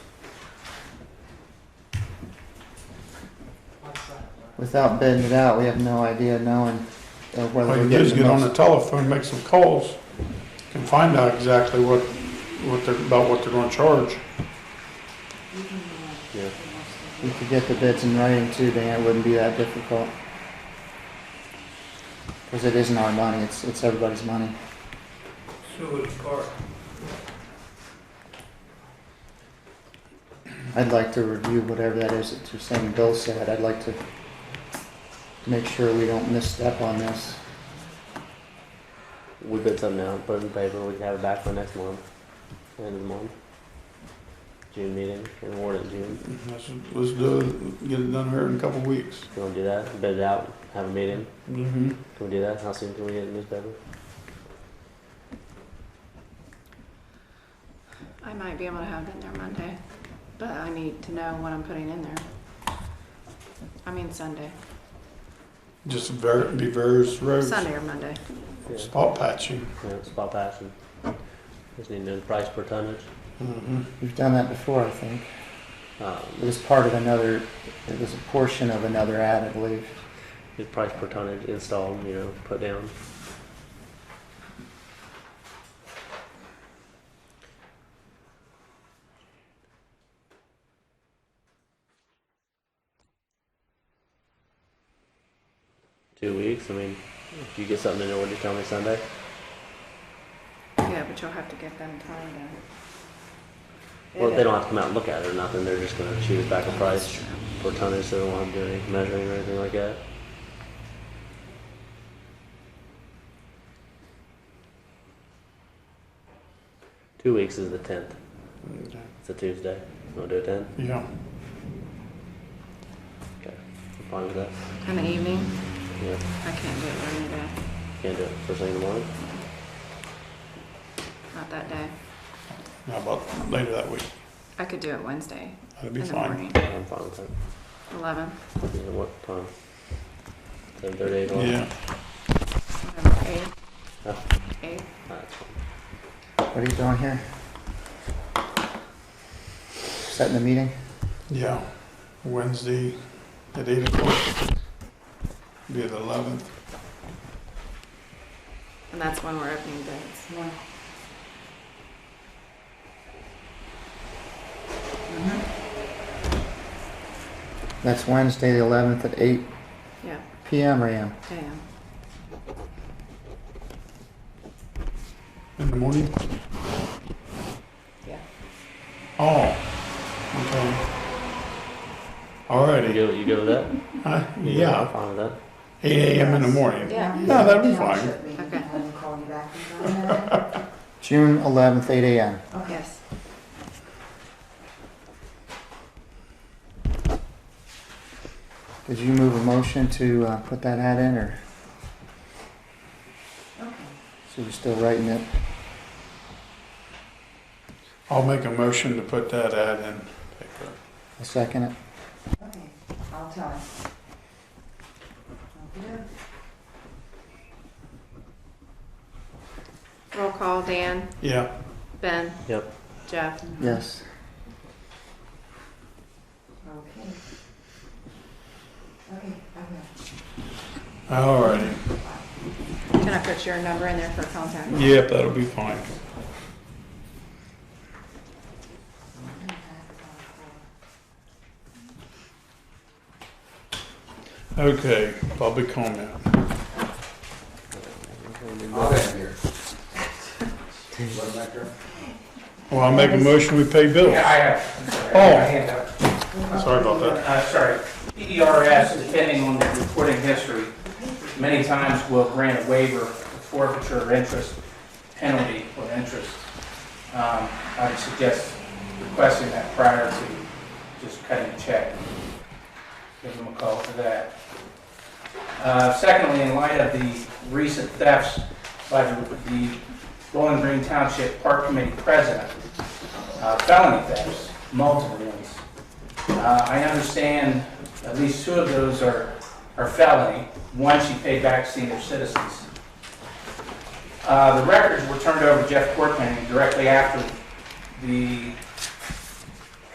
without bidding it out, we have no idea knowing uh, whether All we're you do is getting get the on the most. telephone, make some calls, and find out exactly what, what they're, about what they're gonna charge. Yeah. We could get the bids in writing too, Dan, it wouldn't be that difficult. Cause it isn't our money, it's, it's everybody's money. Sewage Park. I'd like to review whatever that is that you're saying Bill said, I'd like to make sure we don't misstep on this. We bid something out, put it in paper, we can have it back by next month, end of the month. June meeting, and award it in June. Let's, let's do it, get it done here in a couple of weeks. You wanna do that? Bid it out, have a meeting. Mm-hmm. Can we do that? How soon can we get the newspaper? I might be able to have it in there Monday, but I need to know what I'm putting in there. I mean Sunday, Just ver, be various roads, Sunday or Monday. Yeah, spot patching. yeah, spot passing. Just need to know the price per tonnage. Mm-hmm. We've done that before, I think. It Um, was part of another, it was a portion of another ad, I believe. the price per tonnage installed, you know, put down. Two weeks, I mean, if you get something in order, tell me Sunday. Yeah, but you'll have to get them time to. Well, they don't have to come out and look at it or nothing, they're just gonna choose back a price per tonnage, so they don't have to do any measuring or anything like that. Two weeks is the tenth, it's a Tuesday, you wanna do a ten? Yeah, Okay, I'm fine with that, In the evening, yeah, I can't do it during the day, can't do it first thing in the morning, not that day. how about later that week? I could do it Wednesday That'd be in the fine. morning, I'm fine with that, eleven, you know what time? Seven thirty, eight o'clock? Yeah, whatever, eight. Huh? Eight, That's fine. What are you doing here? Setting the meeting? yeah, Wednesday at eight o'clock, be the eleventh. and that's when we're opening bids. That's Wednesday, the 11th at 8 Yeah, PM or AM? damn. In the morning? Yeah. Oh, okay. Alrighty. You go, you go with that? Uh, You go- I'm yeah, fine with that. 8 a.m. in the morning. Yeah. No, that'd be fine. Okay. Okay. June 11th, 8 AM. Yes. Did you move a motion to uh, put that ad in or? So you're still writing it? I'll make a motion to put that ad in. paper. I second it. Okay, I'll tell him. Okay. Roll call, Dan, Yeah, Ben. Yep. Jeff. Yes. Okay, okay, okay. alrighty. Can I put your number in there for contact? Yep, that'll be fine. Okay, public comment. I'll have here. What, Metro? Well, I'll make a motion, we pay bills. Yeah, I have. I'm sorry, I have my hand up. Sorry about that. Uh, sorry, EDRS, depending on the reporting history, many times will grant a waiver of forfeiture of interest, penalty of interest. Um, I would suggest requesting that prior to just cutting a check. Give them a call for that. Uh, Secondly, in light of the recent thefts by the- the Bowling Green Township Park Committee President, uh, felony thefts, multiple ones, uh, I understand at least two of those are, are felony. One she paid back senior citizens. Uh, The records were turned over to Jeff Corkman directly after the